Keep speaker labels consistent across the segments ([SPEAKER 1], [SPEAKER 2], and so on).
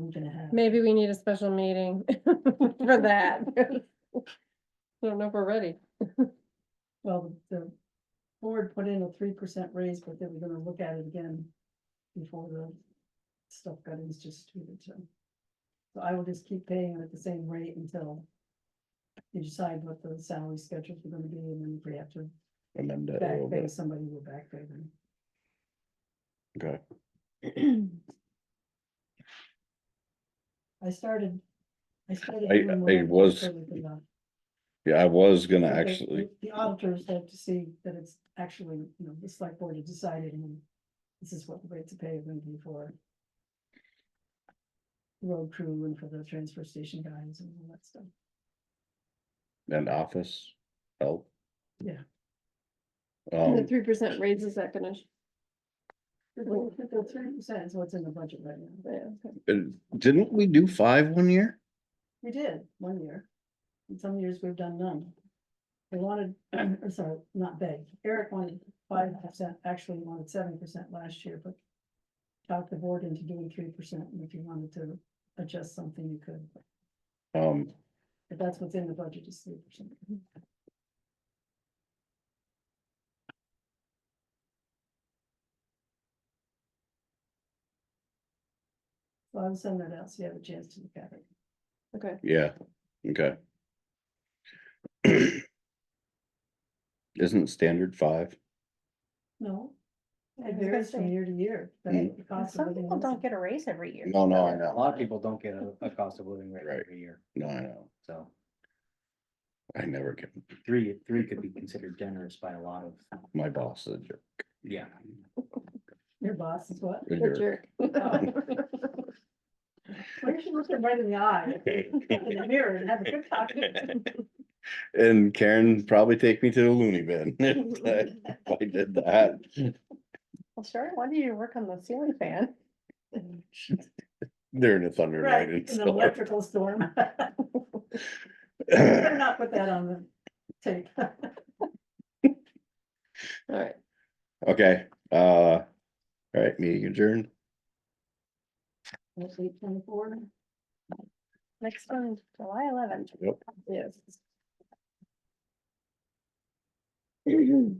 [SPEAKER 1] I'm gonna have.
[SPEAKER 2] Maybe we need a special meeting for that. Don't know if we're ready.
[SPEAKER 1] Well, the board put in a three percent raise, but they were gonna look at it again before the stuff got instituted, so. So I will just keep paying it at the same rate until you decide what the salary schedules are gonna be, and then if we have to
[SPEAKER 3] amend it a little
[SPEAKER 1] back pay
[SPEAKER 3] bit,
[SPEAKER 1] somebody, we'll back pay them.
[SPEAKER 3] okay,
[SPEAKER 1] I started. I started.
[SPEAKER 3] I-
[SPEAKER 1] doing
[SPEAKER 3] I
[SPEAKER 1] what
[SPEAKER 3] was
[SPEAKER 1] could with the-
[SPEAKER 3] yeah, I was gonna
[SPEAKER 1] But they-
[SPEAKER 3] actually,
[SPEAKER 1] The auditors have to see that it's actually, you know, the select board has decided and this is what the rates of pay are going to be for. Road crew and for the transfer station guys and all that stuff.
[SPEAKER 3] an office help.
[SPEAKER 1] Yeah.
[SPEAKER 2] The
[SPEAKER 3] Um,
[SPEAKER 2] three percent raise is that gonna?
[SPEAKER 1] The three percent is what's in the budget right now.
[SPEAKER 2] yeah, okay.
[SPEAKER 3] uh, didn't we do five one year?
[SPEAKER 1] We did one year. And some years we've done none. They wanted, I'm sorry, not they. Eric wanted five percent, actually wanted seven percent last year, but. Talked the board into doing three percent and if you wanted to adjust something, you could.
[SPEAKER 3] Um,
[SPEAKER 1] But that's what's in the budget is three percent. So I'll send that out so you have a chance to look at it.
[SPEAKER 2] Okay,
[SPEAKER 3] yeah, okay. Isn't standard five?
[SPEAKER 1] No.
[SPEAKER 4] I
[SPEAKER 1] It
[SPEAKER 4] was gonna
[SPEAKER 1] varies from
[SPEAKER 4] say.
[SPEAKER 1] year to year. but
[SPEAKER 3] Mm.
[SPEAKER 1] the cost of
[SPEAKER 4] Some
[SPEAKER 1] living
[SPEAKER 4] people
[SPEAKER 1] is-
[SPEAKER 4] don't get a raise every year.
[SPEAKER 3] No, no, I
[SPEAKER 4] Other-
[SPEAKER 3] know.
[SPEAKER 5] A lot of people don't get a, a cost of living rate
[SPEAKER 3] Right.
[SPEAKER 5] every year,
[SPEAKER 3] No, I know,
[SPEAKER 5] so
[SPEAKER 3] I never get,
[SPEAKER 5] three, three could be considered generous by a lot of,
[SPEAKER 3] my boss is a jerk.
[SPEAKER 5] yeah.
[SPEAKER 1] Your boss is what?
[SPEAKER 3] a
[SPEAKER 2] good
[SPEAKER 3] jerk.
[SPEAKER 2] jerk.
[SPEAKER 1] Why don't you look him right in the eye? In the mirror and have a good talk.
[SPEAKER 3] And Karen probably take me to the loony bin if I- if I did that.
[SPEAKER 4] Well, sure, why did you work on the ceiling fan?
[SPEAKER 3] During a thunder
[SPEAKER 1] Right, in
[SPEAKER 3] night and
[SPEAKER 1] an
[SPEAKER 3] stuff.
[SPEAKER 1] electrical storm. Better not put that on the tape.
[SPEAKER 2] All right,
[SPEAKER 3] Okay, uh, alright, meeting adjourned.
[SPEAKER 1] Eight twenty-four.
[SPEAKER 4] Next one, July eleventh.
[SPEAKER 3] Yep.
[SPEAKER 2] yes.
[SPEAKER 4] Two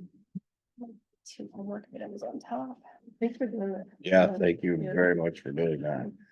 [SPEAKER 4] homework items on top. Thanks for doing that.
[SPEAKER 3] Yeah, thank you
[SPEAKER 2] Yeah.
[SPEAKER 3] very much for doing that.